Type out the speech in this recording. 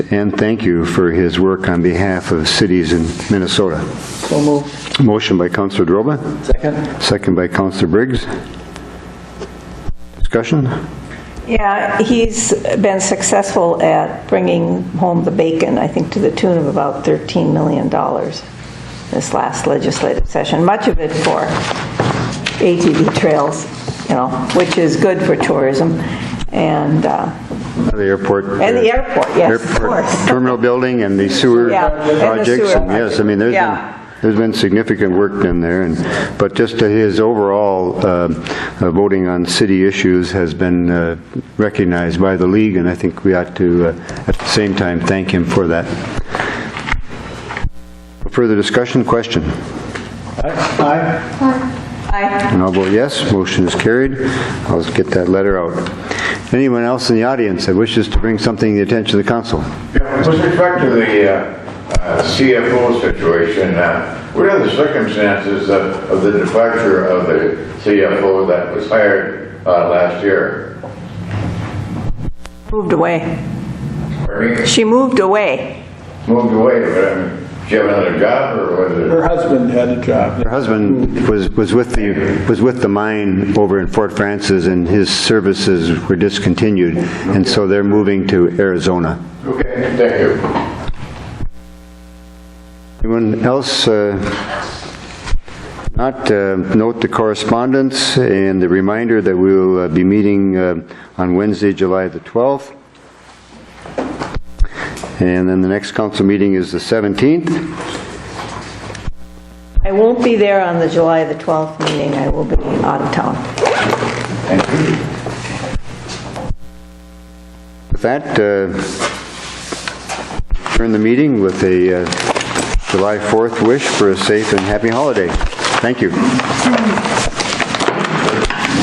and thank you for his work on behalf of cities in Minnesota. So moved. Motion by Counselor Droba, Second? second by Counselor Briggs. Discussion? Yeah, he's been successful at bringing home the bacon, I think to the tune of about $13 million this last legislative session, much of it for ATV trails, you know, which is good for tourism. And, uh, The airport. uh, And the airport, yes, of airport course. Terminal building and the sewer Yeah, and the projects. sewer and Yes, I mean, there's Yeah. been, there's been significant work done there. and But just to his overall uh, uh, voting on city issues has been uh, recognized by the league, and I think we ought to, uh, at the same time, thank him for that. Further discussion, question? Aye. I, And I'll vote yes, motion is carried. I'll get that letter out. Anyone else in the audience that wishes to bring something to the attention of the council? Yeah, With respect to the uh, uh, CFO situation, uh, what are the circumstances of of the departure of the CFO that was hired uh, last year? moved away. Pardon me? She moved away. Moved away, but I mean, did she have another job or was it? Her husband had a job. Her husband was, was with the, was with the mine over in Fort Francis, and his services were discontinued, and so they're moving to Arizona. Okay, thank you. Anyone else uh, not uh, note the correspondence and the reminder that we will uh, be meeting uh, on Wednesday, July the 12th? And then the next council meeting is the 17th. I won't be there on the July the 12th meeting, I will be out of town. With that, uh, turn the meeting with a uh, July 4th wish for a safe and happy holiday. Thank you.